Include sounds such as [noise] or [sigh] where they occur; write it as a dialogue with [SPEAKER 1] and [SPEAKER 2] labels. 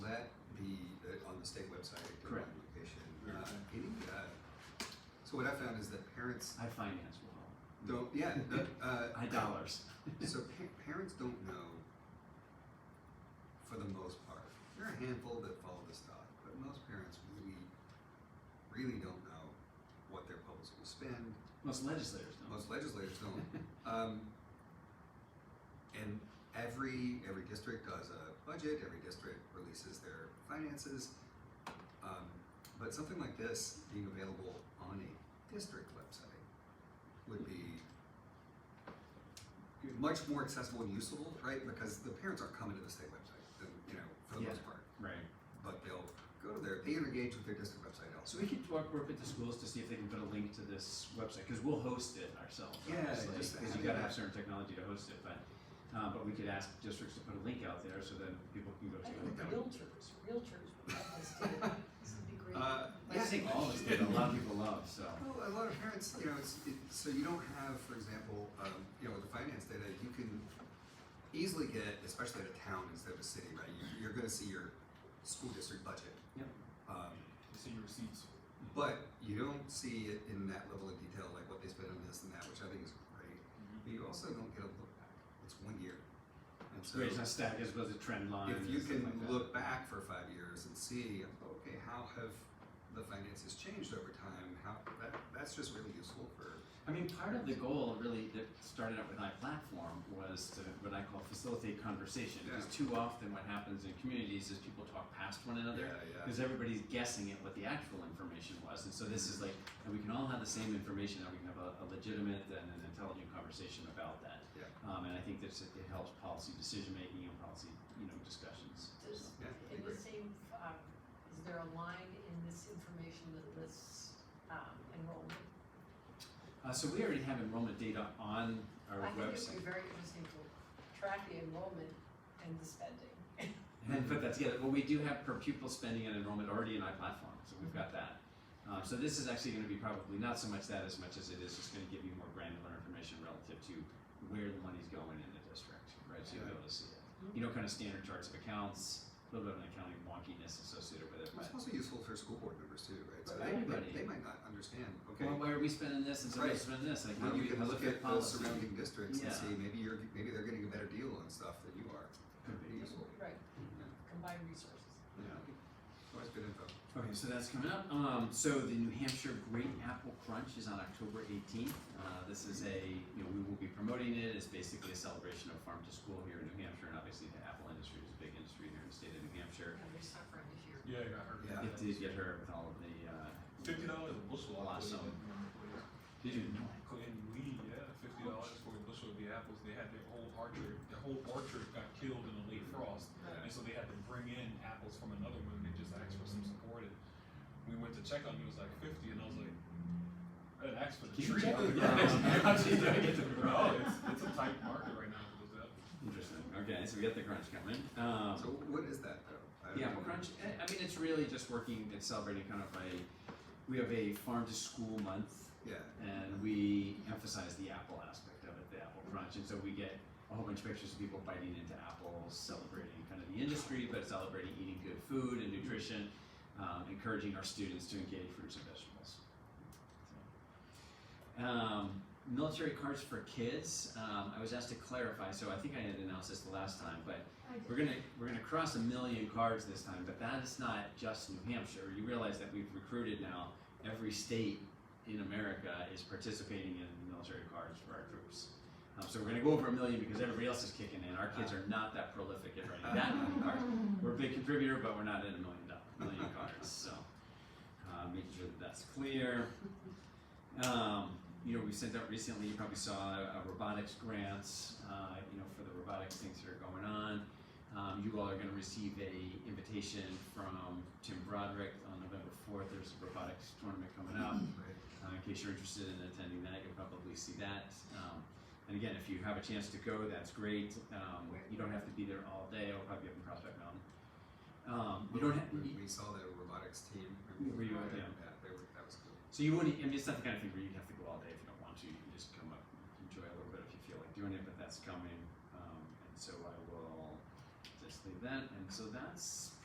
[SPEAKER 1] uh, So what I found is that parents
[SPEAKER 2] I finance well.
[SPEAKER 1] don't. Yeah. No, uh,
[SPEAKER 2] I dollars. [laughs]
[SPEAKER 1] So pa- parents don't know, for the most part. There are a handful that follow this thought, but most parents really, really don't know what their public school spend.
[SPEAKER 2] Most legislators don't.
[SPEAKER 1] Most legislators don't. Um, and every every district does a budget. Every district releases their finances. Um, but something like this being available on a district website would be much more accessible and useful, right? Because the parents aren't coming to the state website, than, you know, for the most
[SPEAKER 2] Yeah.
[SPEAKER 1] part.
[SPEAKER 2] [laughs] Right.
[SPEAKER 1] But they'll go to their they engage with their district website also.
[SPEAKER 2] So we could work, work with the schools to see if they can put a link to this website, because we'll host it ourselves,
[SPEAKER 1] Yeah,
[SPEAKER 2] obviously,
[SPEAKER 1] just
[SPEAKER 2] because you
[SPEAKER 1] having
[SPEAKER 2] gotta
[SPEAKER 1] that-
[SPEAKER 2] have certain technology to host it, but, uh, but we could ask districts to put a link out there so then people can go
[SPEAKER 3] I
[SPEAKER 2] to
[SPEAKER 3] think
[SPEAKER 2] it.
[SPEAKER 3] realtors, realtors would love this too. This would be great.
[SPEAKER 1] Uh,
[SPEAKER 2] I think all of us did, a lot of people love, so.
[SPEAKER 1] Well, a lot of parents, you know, it's, it, so you don't have, for example, um, you know, with the finance data, you can easily get, especially at a town instead of a city, right? You, you're going to see your school district budget.
[SPEAKER 2] Yep.
[SPEAKER 1] Um,
[SPEAKER 4] You see your receipts.
[SPEAKER 1] but you don't see it in that level of detail, like what they spent on this and that, which I think is great.
[SPEAKER 2] Mm-hmm.
[SPEAKER 1] But you also don't get a look back. It's one year. And so
[SPEAKER 2] Wait, it's not static, it's supposed to trend line.
[SPEAKER 1] if
[SPEAKER 2] and
[SPEAKER 1] you
[SPEAKER 2] stuff
[SPEAKER 1] can
[SPEAKER 2] like that.
[SPEAKER 1] look back for five years and see, okay, how have the finances changed over time? How that, that's just really useful for
[SPEAKER 2] I mean, part of the goal really that started out with iPlatform was to what I call facilitate conversation. Because too often what happens in communities is people talk past one another.
[SPEAKER 1] Yeah, yeah.
[SPEAKER 2] Because everybody's guessing at what the actual information was. And so this is like, and we can all have the same information and we can have a, a legitimate and an intelligent conversation about that.
[SPEAKER 1] Yeah.
[SPEAKER 2] Um, and I think that's, it helps policy decision making and policy, you know, discussions.
[SPEAKER 3] Does,
[SPEAKER 1] Yeah, I
[SPEAKER 3] in the
[SPEAKER 1] agree.
[SPEAKER 3] same, um, is there a line in this information that lists, um, enrollment?
[SPEAKER 2] Uh, so we already have enrollment data on our
[SPEAKER 3] I think it
[SPEAKER 2] website.
[SPEAKER 3] would be very interesting to track the enrollment and the spending.
[SPEAKER 2] and then put that together. Well, we do have per pupil spending and enrollment already in iPlatform, so we've got that. Um, so this is actually going to be probably not so much that as much as it is just going to give you more granular information relative to where the money's going in the district, right? So you'll be able to see it. You know, kind of standard charts of accounts, a little bit of an accounting wonkiness associated with
[SPEAKER 1] It's
[SPEAKER 2] it, but
[SPEAKER 1] also useful for school board members too, right? So
[SPEAKER 2] But
[SPEAKER 1] they,
[SPEAKER 2] everybody-
[SPEAKER 1] they, they might not understand, okay,
[SPEAKER 2] well, why are we spending this and somebody's
[SPEAKER 1] Right.
[SPEAKER 2] spending this? Like, how
[SPEAKER 1] when
[SPEAKER 2] do
[SPEAKER 1] you
[SPEAKER 2] we
[SPEAKER 1] can look at the
[SPEAKER 2] policy?
[SPEAKER 1] surrounding districts and
[SPEAKER 2] Yeah.
[SPEAKER 1] see, maybe you're, maybe they're getting a better deal on stuff than you are.
[SPEAKER 2] Could be.
[SPEAKER 1] Useful.
[SPEAKER 3] Right, combined resources.
[SPEAKER 1] Yeah. Always good info.
[SPEAKER 2] Okay, so that's coming up. Um, so the New Hampshire Great Apple Crunch is on October 18th. Uh, this is a, you know, we will be promoting it. It's basically a celebration of farm to school here in New Hampshire, and obviously the apple industry is a big industry here in the state of New Hampshire.
[SPEAKER 3] And they're suffering this year.
[SPEAKER 4] Yeah, I got hurt.
[SPEAKER 1] Yeah.
[SPEAKER 2] It did get her with all of the. Uh,
[SPEAKER 4] Fifty dollars a bushel. I
[SPEAKER 2] Awesome.
[SPEAKER 4] believe, in Norman,
[SPEAKER 2] Did you know?
[SPEAKER 4] please. In Lee, yeah, fifty dollars for a bushel of the apples. They had their whole orchard, their whole orchard got killed in a late frost, and so they had to bring in apples from another one. They just asked for some support, and we went to check on it. It was like fifty, and I was like, I didn't ask for the
[SPEAKER 2] Keep
[SPEAKER 4] tree. [laughs]
[SPEAKER 2] checking.
[SPEAKER 4] Yeah, I was like,
[SPEAKER 2] Yeah.
[SPEAKER 4] I get to grow. Oh, It's, it's a tight market right now for those apples.
[SPEAKER 2] Interesting. Okay, so we got the crunch coming. Um,
[SPEAKER 1] So what is that though? I don't
[SPEAKER 2] Yeah,
[SPEAKER 1] know.
[SPEAKER 2] well, crunch. I I mean, it's really just working and celebrating kind of a. We have a farm to school month
[SPEAKER 1] Yeah,
[SPEAKER 2] and we emphasize the apple aspect of it, the apple crunch, and so we get a whole bunch of pictures of people biting into apples, celebrating kind of the industry, but celebrating eating good food and nutrition, um, encouraging our students to engage fruits and vegetables. So, Um, military cards for kids. Um, I was asked to clarify, so I think I had announced this the last time, but we're gonna we're gonna cross a million cards this time, but that is not just New Hampshire. You realize that we've recruited now every state in America is participating in the military cards for our troops. Um, so we're gonna go over a million because everybody else is kicking in. Our kids are not that prolific at writing that many cards. We're a big contributor, but we're not at a million dollars, million cards. So uh, making sure that that's clear. Um, you know, we sent out recently. You probably saw a robotics grant. Uh, you know, for the robotics things that are going on. Um, you all are going to receive a invitation from Tim Broderick on November fourth. There's a robotics tournament coming up.
[SPEAKER 1] right.
[SPEAKER 2] Uh, in case you're interested in attending that, you'll probably see that. Um, and again, if you have a chance to go, that's great. Um, you don't have to be there all day. I'll probably be up in Prospect Mountain. Um, you don't have.
[SPEAKER 1] We, we saw the robotics team.
[SPEAKER 2] Were you-
[SPEAKER 1] Yeah,
[SPEAKER 2] yeah.
[SPEAKER 1] they were, that was cool.
[SPEAKER 2] So you wouldn't, I mean, it's not the kind of thing where you'd have to go all day if you don't want to. You can just come up, and enjoy a little bit if you feel like doing it, but that's coming. Um, and so I will just leave that. And so that's